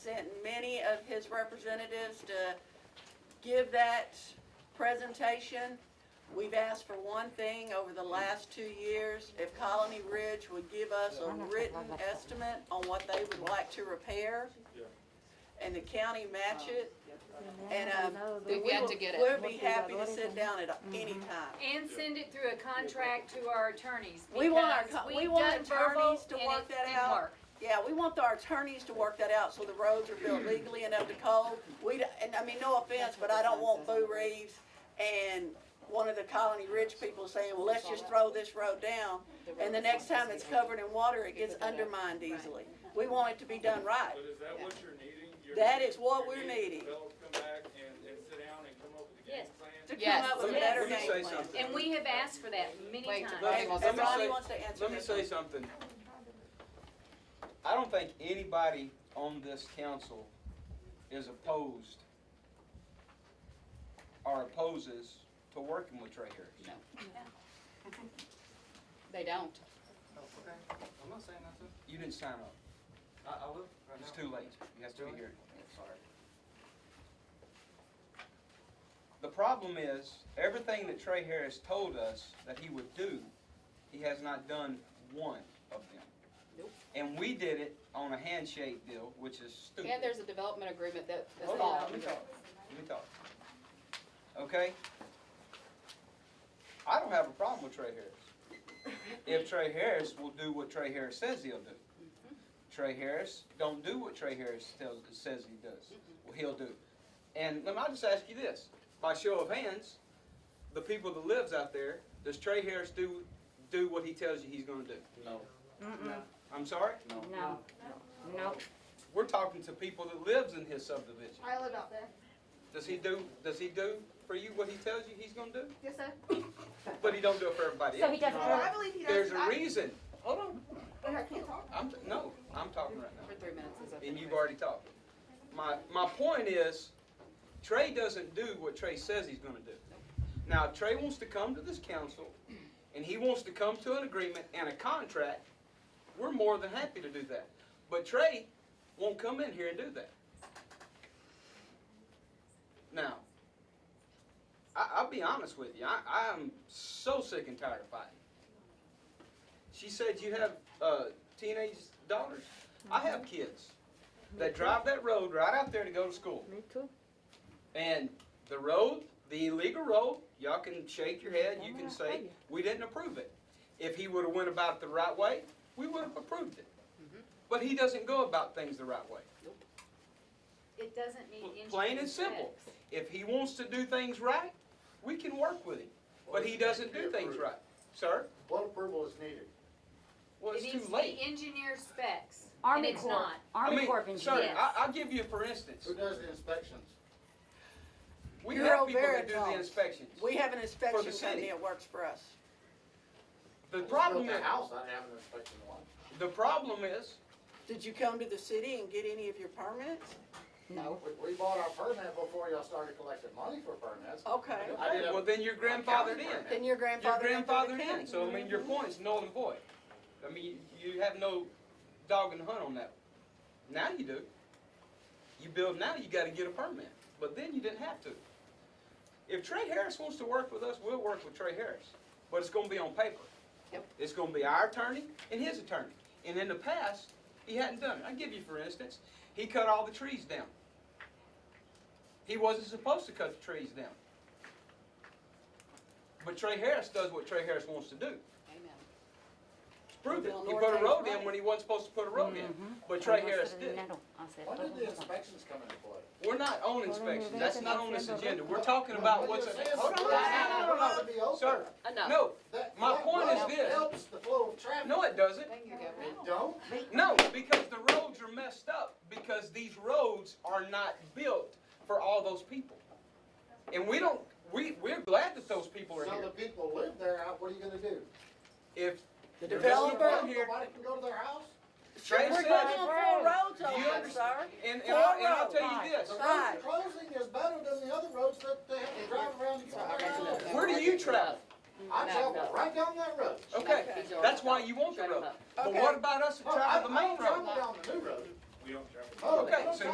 any of his representatives to give that presentation. We've asked for one thing over the last two years, if Colony Ridge would give us a written estimate on what they would like to repair, and the county match it, and, um, We've got to get it. We'll be happy to sit down at any time. And send it through a contract to our attorneys. We want our because co- we've we want done verbal attorneys to and work it that didn't out. work. Yeah, we want our attorneys to work that out so the roads are built legally and up to code. We, d- and I mean, no offense, but I don't want Boo Reeves and one of the Colony Ridge people saying, well, let's just throw this road down. And the next time it's covered in water, it gets undermined easily. We want it to be done right. But is that what you're needing? You're- That is what you're we're needing. Develop, come back and, and sit down and come up with a game Yes. To plan? come up with a better Let me say game plan. something. And we have asked for that many Wait, times. Let me- And- let And me say- Ronnie wants to answer Let me this. say something. I don't think anybody on this council is opposed or opposes to working with Trey Harris. No. They don't. Okay, I'm not saying nothing. You didn't sign up. I, I look right now. It's too late. You have to be here. Sorry. The problem is, everything that Trey Harris told us that he would do, he has not done one of them. Nope. And we did it on a handshake deal, which is stupid. And there's a development agreement that is Hold on, involved. Oh, let me talk, let me talk. Okay? I don't have a problem with Trey Harris. If Trey Harris will do what Trey Harris says he'll do. Trey Harris don't do what Trey Harris tells, says he does, well, he'll do. And let me, I'll just ask you this, by show of hands, the people that lives out there, does Trey Harris do, do what he tells you he's gonna do? No. I'm sorry? No, no. We're talking to people that lives in his subdivision. I live out there. Does he do, does he do for you what he tells you he's gonna do? Yes, sir. But he don't do it for everybody So he else. doesn't, Well, I really- believe he does. Uh, There's a I- reason, hold on, I can't talk. I'm, no, I'm talking right now, For three minutes is up. and you've already talked. My, my point is, Trey doesn't do what Trey says he's gonna do. Now, if Trey wants to come to this council, and he wants to come to an agreement and a contract, we're more than happy to do that. But Trey won't come in here and do that. Now, I, I'll be honest with you, I, I'm so sick and tired of fighting. She said you have uh, teenage daughters. I have kids that drive that road right out there to go to school. me too. And the road, the illegal road, y'all can shake your head, you can say, we didn't approve it. If he would've went about it the right way, we would've approved it. But he doesn't go about things the right way. It doesn't meet engineering Plain and simple. specs. If he wants to do things right, we can work with him, but he doesn't do things right. Sir, What approval is needed? well, It it's needs too to be late. engineer specs, and Army it's Corps, not. I Army mean, Corps of Engineers. Sir, Yes. I, I'll give you, for instance, Who does the inspections? we Bureau have people that do the Veritas. inspections. We have an For inspection the company city. that works for us. The I just problem built is, a house, I have an inspection one. the problem is, Did you come to the city and get any of your permits? No. We, we bought our permit before y'all started collecting money for permits. Okay. I did a- well, then your grandfather did. Then your Your grandfather. went to the grandfather county. did, so I mean, your point's null and void. I mean, you have no dog and hunt on that. Now you do. You build now, you gotta get a permit, but then you didn't have to. If Trey Harris wants to work with us, we'll work with Trey Harris, but it's gonna be on paper. Yep. It's gonna be our attorney and his attorney, and in the past, he hadn't done it. I give you for instance, he cut all the trees down. He wasn't supposed to cut the trees down. But Trey Harris does what Trey Harris wants to do. Amen. It's proven. Well, He Bill put a Norton's road in right. Mm-hmm. when he wasn't supposed to put a road in, I but Trey said Harris in the did. middle. I said, When did "Hold the on." inspections come into play? We're not on inspections. That's not on this agenda. We're talking about what's. What you're saying is Hold the on. Uh, roads don't have to be open. Sir, Enough. no, That- my that point is road this. Helps the flow of traffic. no, it doesn't. Thank you, Governor. It don't? No, because the roads are messed up because these roads are not built for all those people. And we don't, we, we're glad that those people are So the here. people live there, how- what are you gonna do? If The They're developer. down here. Nobody can go to their house? Trey We're said, going on four roads You over, understand- sir. and, and I'll, and I'll tell you The this, Right. road closing is better than the other roads that they have to drive around to get to their house. where do you travel? I travel right down that road. Okay, that's why you want the road. But what about us that Oh, I- travel the main I don't road? travel down the new road. We don't travel. Oh, Okay, don't so